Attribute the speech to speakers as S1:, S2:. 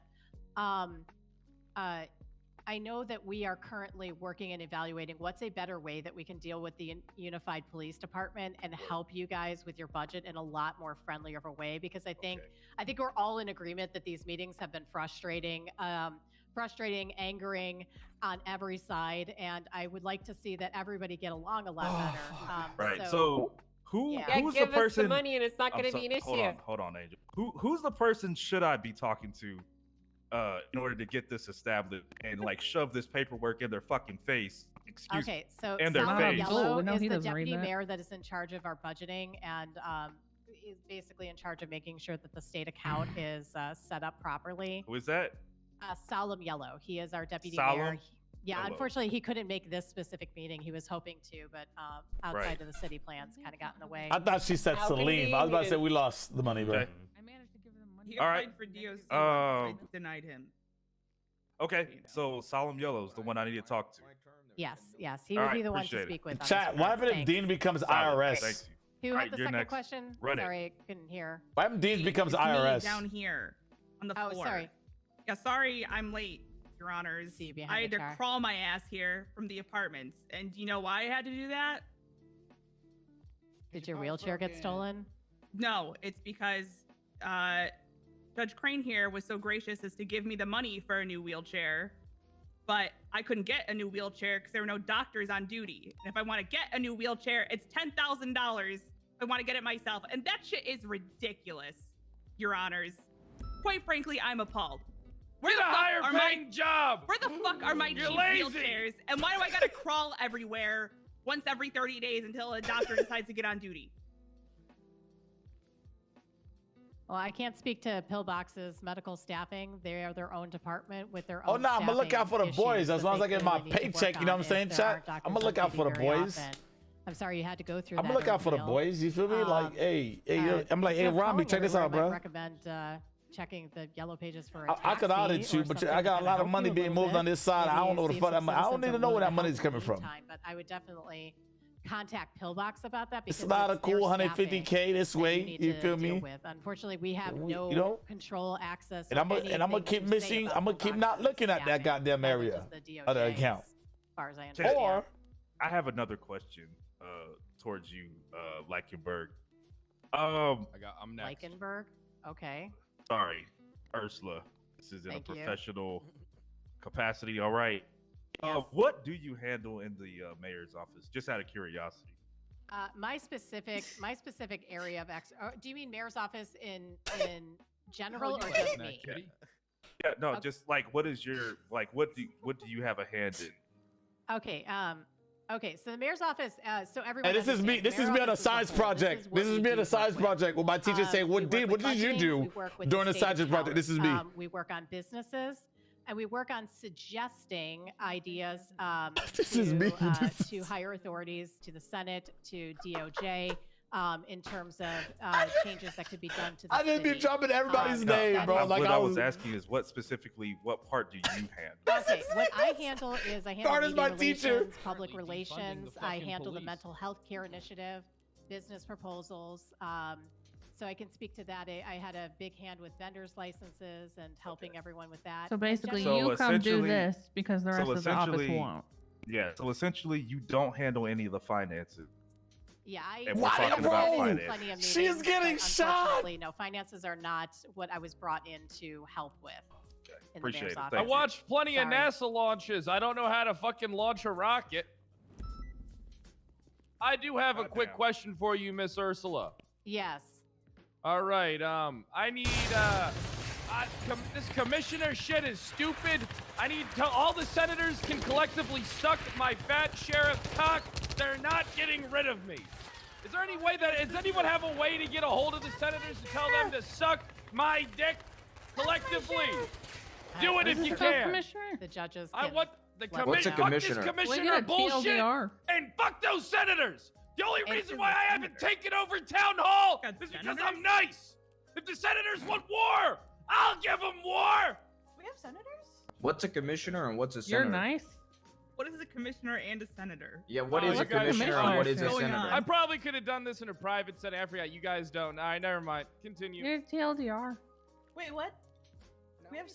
S1: Um, uh, I know that we are currently working and evaluating what's a better way that we can deal with the unified police department and help you guys with your budget in a lot more friendlier of a way because I think
S2: Okay.
S1: I think we're all in agreement that these meetings have been frustrating, um, frustrating, angering on every side, and I would like to see that everybody get along a lot
S3: Oh,
S1: better.
S3: fuck.
S1: Um,
S2: Right.
S1: So,
S3: So who
S1: Yeah.
S4: Yeah,
S3: who's
S4: give
S3: the
S4: us
S3: person?
S4: the money and it's not
S3: I'm
S4: going to
S3: so-
S4: be an issue.
S3: Hold on, hold on, Angel. Who who's the person should I be talking to, uh, in order to get this established and like shove this paperwork in their fucking face? Excuse me.
S1: okay, so
S3: and their
S1: Sally
S3: face.
S1: Yellow
S5: Oh, no,
S1: is
S5: he
S1: the
S5: doesn't read
S1: deputy
S5: that.
S1: mayor that is in charge of our budgeting and um, is basically in charge of making sure that the state account is uh, set up properly.
S3: Who is that?
S1: Uh, Solemn Yellow, he is our deputy mayor.
S3: Solemn
S1: He- Yeah,
S3: Yellow.
S1: unfortunately, he couldn't make this specific meeting. He was hoping to, but um, outside
S3: Right.
S1: of the city plans, kind of got in the way.
S6: I thought she said
S4: How can
S6: Salim.
S4: we
S6: I was about to
S4: even-
S6: say we lost the money, bro.
S3: Okay.
S5: I managed to give them money.
S7: He
S3: All
S7: applied
S3: right.
S7: for DOC.
S3: Um,
S7: once they denied him.
S3: Okay,
S7: You know.
S3: so Solemn Yellow is the one I need to talk to.
S1: Yes, yes, he
S3: All
S1: would
S3: right,
S1: be the one to
S3: appreciate it.
S1: speak with. on
S6: Chat.
S1: this
S6: What
S1: one.
S6: happened if
S1: Thanks.
S6: Dean becomes
S3: Solid. Thank
S6: IRS?
S3: you.
S1: Who
S3: All
S1: had
S3: right,
S1: the
S3: you're
S1: second
S3: next.
S1: question?
S3: Run it.
S1: Sorry, I couldn't hear.
S6: What happened if Dean becomes
S7: It's me
S6: IRS?
S7: down here on the
S1: Oh,
S7: floor.
S1: sorry.
S7: Yeah, sorry, I'm late, Your Honors.
S1: See you behind
S7: I
S1: the
S7: had to
S1: car.
S7: crawl my ass here from the apartments, and do you know why I had to do that?
S1: Did your wheelchair get stolen?
S7: No, it's because uh, Judge Crane here was so gracious as to give me the money for a new wheelchair, but I couldn't get a new wheelchair because there were no doctors on duty. And if I want to get a new wheelchair, it's ten thousand dollars. I want to get it myself, and that shit is ridiculous, Your Honors. Quite frankly, I'm appalled. Where
S2: Get a
S7: the fuck
S2: higher
S7: are my
S2: paying job.
S7: where the fuck are my
S2: You're
S7: cheap
S2: lazy.
S7: wheelchairs? And why do I gotta crawl everywhere once every 30 days until a doctor decides to get on duty?
S1: Well, I can't speak to Pillbox's medical staffing. They are their own department with their own.
S6: Oh nah, I'ma look out for the
S1: staffing
S6: boys
S1: issues
S6: as long
S1: that
S6: as I
S1: they
S6: get my
S1: clearly need to work
S6: paycheck, you know
S1: on
S6: what I'm saying,
S1: if there
S6: Chat?
S1: aren't doctors
S6: I'ma
S1: on
S6: look out
S1: duty
S6: for the
S1: very
S6: boys.
S1: often. I'm sorry you had to go through
S6: I'm
S1: that.
S6: gonna look out for the
S1: ordeal.
S6: boys. You feel me?
S1: Um,
S6: like, hey, hey,
S1: Uh,
S6: yo- I'm like,
S1: if
S6: hey,
S1: you have
S6: Robbie,
S1: phone
S6: check this
S1: here,
S6: out,
S1: I might
S6: bro.
S1: recommend uh, checking the yellow pages for a
S6: I, I could
S1: taxi
S6: audit you,
S1: or
S6: but
S1: something
S6: I
S1: that
S6: got a
S1: can
S6: lot of
S1: help you
S6: money
S1: a
S6: being
S1: little
S6: moved
S1: bit.
S6: on this side. I
S1: Maybe
S6: don't know
S1: see
S6: the
S1: if
S6: fuck.
S1: some
S6: I'm, I don't
S1: citizens
S6: need
S1: are
S6: to know
S1: willing
S6: where that
S1: help in
S6: money's
S1: the
S6: coming from.
S1: meantime, But I would definitely contact Pillbox about that because
S6: It's not a
S1: their
S6: cool 150k
S1: staffing
S6: this
S1: that you
S6: way.
S1: need
S6: You
S1: to
S6: feel
S1: deal
S6: me?
S1: With. Unfortunately, we have
S6: We-
S1: no
S6: you know?
S1: control access.
S6: And
S1: or
S6: I'ma- and I'ma
S1: anything
S6: keep
S1: to say
S6: missing-
S1: about
S6: I'ma keep
S1: Pillbox
S6: not
S1: and
S6: looking at that
S1: staffing,
S6: goddamn
S1: other
S6: area
S1: just the
S6: of the
S1: DOJ,
S6: account.
S1: As far as I understand.
S6: Or
S3: I have another question uh, towards you, uh, Leichenberg. Um,
S2: I got. I'm next.
S1: Leichenberg. Okay.
S3: sorry, Ursula. This is in
S1: Thank
S3: a
S1: you.
S3: professional capacity. All right. Uh,
S1: Yes.
S3: what do you handle in the uh, mayor's office? Just out of curiosity.
S1: Uh, my specific my specific area of ex. oh, do you mean mayor's office in in general or just me?
S3: Yeah, no,
S1: Okay.
S3: just like what is your like what do what do you have a hand in?
S1: Okay. Um. Okay. So the mayor's office. Uh, so everyone.
S6: and this is me.
S1: understands
S6: This
S1: mayor's
S6: is me on a
S1: office whole.
S6: science project.
S1: what
S6: This is
S1: we
S6: me on
S1: do
S6: a science
S1: work with.
S6: project. Where my teacher
S1: Um,
S6: say,
S1: we
S6: "What
S1: work
S6: did? What
S1: with
S6: did you
S1: budgeting, we
S6: do?"
S1: work with
S6: during the
S1: state
S6: science project? This is me.
S1: account, we work on businesses, and we work on suggesting ideas. Um,
S6: This
S1: to,
S6: is me.
S1: uh,
S6: This
S1: to
S6: is-
S1: higher authorities, to the Senate, to DOJ, um, in terms of uh, changes that could be done to the
S6: I didn't be
S1: city.
S6: dropping everybody's
S1: Um,
S6: name,
S1: that
S6: bro.
S3: I-
S6: Like
S3: uh, what
S6: I
S3: I was
S6: was.
S3: asking is what specifically what part do you handle?
S1: Okay, what I handle is I handle
S6: Darn is
S1: media
S6: my teacher.
S1: relations, public
S2: Currently defunding the
S1: relations. I
S2: fucking
S1: handle the
S2: police.
S1: mental health care initiative, business proposals. Um, so I can speak to that. I, I had a big hand with vendors licenses and helping everyone with that.
S5: So basically,
S3: So
S5: you come do
S3: essentially-
S5: this because the
S3: so
S5: rest of the office
S3: essentially-
S5: won't.
S3: yeah. So essentially, you don't handle any of the finances.
S1: Yeah, I.
S3: And we're Why
S6: talking about
S1: I've
S6: finance.
S1: had plenty of
S6: She's
S1: meetings, but
S6: getting shot!
S1: unfortunately, No, finances are not what I was brought in to help with. in the
S3: Appreciate
S1: mayor's
S3: it.
S1: office.
S3: Thank
S2: I
S3: you.
S2: watched plenty of
S1: Sorry.
S2: NASA launches. I don't know how to fucking launch a rocket. I do have a quick
S3: Goddamn.
S2: question for you, Miss Ursula.
S1: Yes.
S2: All right. Um, I need uh, I, com- this commissioner shit is stupid. I need to. All the senators can collectively suck my fat sheriff cock. They're not getting rid of me. Is there any way that does anyone have a way to get a hold of the senators and tell them to suck my dick collectively? Do it if
S1: Uh,
S2: you
S1: the-
S2: can.
S5: Commissioner,
S1: The judges.
S2: I
S1: can-
S2: want the
S1: What's
S2: commi-
S1: a
S2: fuck this
S8: commissioner?
S5: we
S2: commissioner
S5: got
S2: bullshit
S5: TLDR.
S2: and fuck those senators. The only
S7: And
S2: reason
S7: to
S2: why
S7: the
S2: I haven't
S7: senator.
S2: taken over town hall
S7: God,
S2: is because I'm
S7: senators?
S2: nice. If the senators want war, I'll give them war.
S7: We have senators?
S8: What's a commissioner and what's a senator?
S5: You're nice.
S7: What is a commissioner and a senator?
S8: Yeah, what
S2: Oh,
S8: is a
S2: what's a
S8: commissioner and what is
S5: commissioner?
S8: a
S7: What's going
S8: senator?
S7: on?
S2: I probably could have done this in a private setting. I forgot you guys don't. All right, never mind. Continue.
S5: You're TLDR.
S7: Wait, what?